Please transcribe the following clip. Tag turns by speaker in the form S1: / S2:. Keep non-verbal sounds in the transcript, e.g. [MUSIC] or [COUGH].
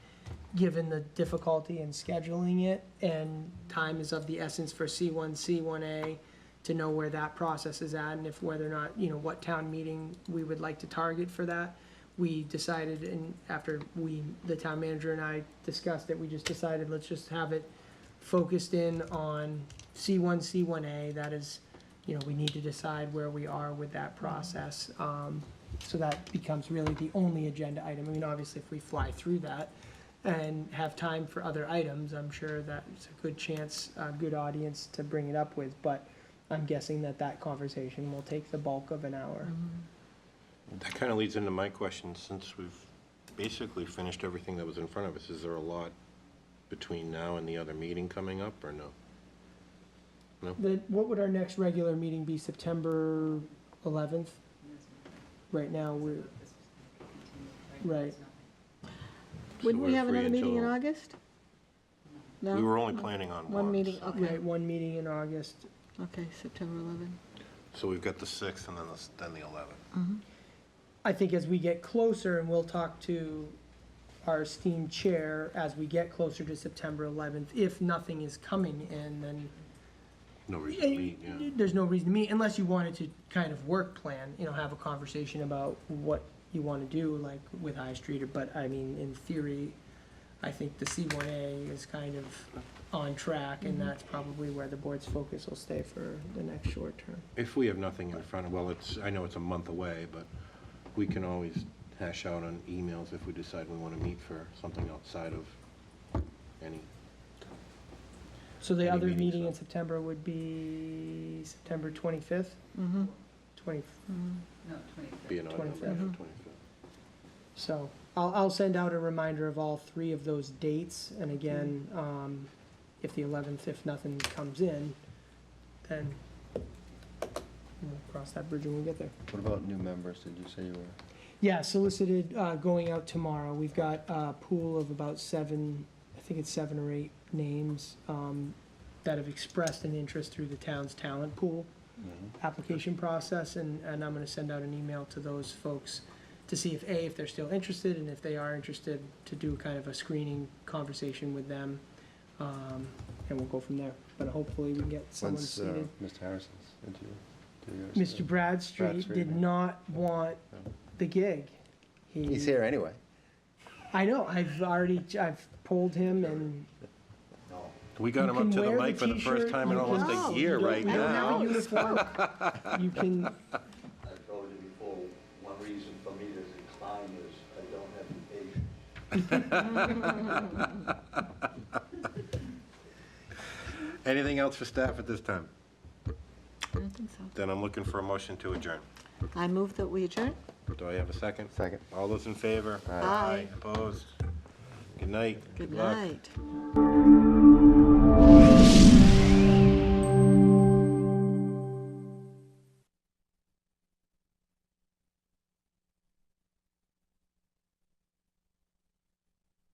S1: given the difficulty in scheduling it, and time is of the essence for C1, C1A, to know where that process is at, and if whether or not, you know, what town meeting we would like to target for that. We decided, and after we, the town manager and I discussed it, we just decided, let's just have it focused in on C1, C1A, that is, you know, we need to decide where we are with that process. Um, So that becomes really the only agenda item. I mean, obviously, if we fly through that, and have time for other items, I'm sure that's a good chance, a good audience to bring it up with, but I'm guessing that that conversation will take the bulk of an hour.
S2: That kind of leads into my question, since we've basically finished everything that was in front of us, is there a lot between now and the other meeting coming up, or no?
S1: Then, what would our next regular meeting be, September eleventh? Right now, we're, right,
S2: So
S3: Wouldn't we
S2: we're
S3: have
S2: free
S3: another meeting in
S2: until-
S3: August? No?
S2: We were only planning on one.
S3: One meeting,
S2: so-
S3: okay,
S1: right, one meeting in August.
S3: okay, September 11.
S2: So we've got the 6th and then the, s- then the 11th.
S1: I think as we get closer, and we'll talk to our esteemed chair as we get closer to September eleventh, if nothing is coming in, then
S2: No reason to meet, yeah.
S1: There's no reason to meet unless you wanted to kind of work plan, you know, have a conversation about what you want to do, like with High Street, but I mean, in theory, I think the C one A is kind of on track, and
S2: Mm-hmm.
S1: that's probably where the board's focus will stay for the next short term.
S2: If we have nothing in front of, well, it's, I know it's a month away, but we can always hash out on emails if we decide we want to meet for something outside of any,
S1: So the
S2: Any
S1: other
S2: meetings,
S1: meeting in
S2: though?
S1: September would be September twenty-fifth,
S3: Mm-hmm.
S1: twenty,
S4: No, twenty-fifth.
S2: be an odd number,
S3: 25th.
S2: 25th.
S1: so, I'll, I'll send out a reminder of all three of those dates, and again, um, if the eleventh, if nothing comes in, then we'll cross that bridge when we get there.
S5: What about new members? Did you say you were?
S1: Yeah, solicited, uh, going out tomorrow. We've got a pool of about seven, I think it's seven or eight names, um, that have expressed an interest through the town's talent pool
S5: Mm-hmm.
S1: application process, and, and I'm gonna send out an email to those folks to see if, A, if they're still interested, and if they are interested, to do kind of a screening conversation with them. Um, and we'll go from there, but hopefully we can get someone
S5: When's, uh,
S1: seated.
S5: Mr. Harrison's interview? Do you guys-
S1: Mr. Bradstreet
S5: Bradstreet,
S1: did
S5: yeah.
S1: not want the gig. He-
S5: He's here anyway.
S1: I know, I've already, I've polled him and
S2: We got
S1: You
S2: him up
S1: can
S2: to the
S1: wear the
S2: mic for the first
S1: t-shirt,
S2: time in
S1: you
S2: almost
S3: can- No,
S2: a
S3: you
S2: year
S3: don't-
S2: right
S3: I
S1: you
S3: don't
S2: now.
S1: have a uniform.
S2: [LAUGHS]
S1: You can,
S6: I told you before, one reason for me to decline is I don't have the patience.
S2: Anything else for staff at this time?
S3: I don't think so.
S2: Then I'm looking for a motion to adjourn.
S3: I move that we adjourn.
S2: Do I have a second?
S5: Second.
S2: All those in favor?
S3: Aye.
S2: Opposed? Good night.
S3: Good
S2: luck.
S3: night.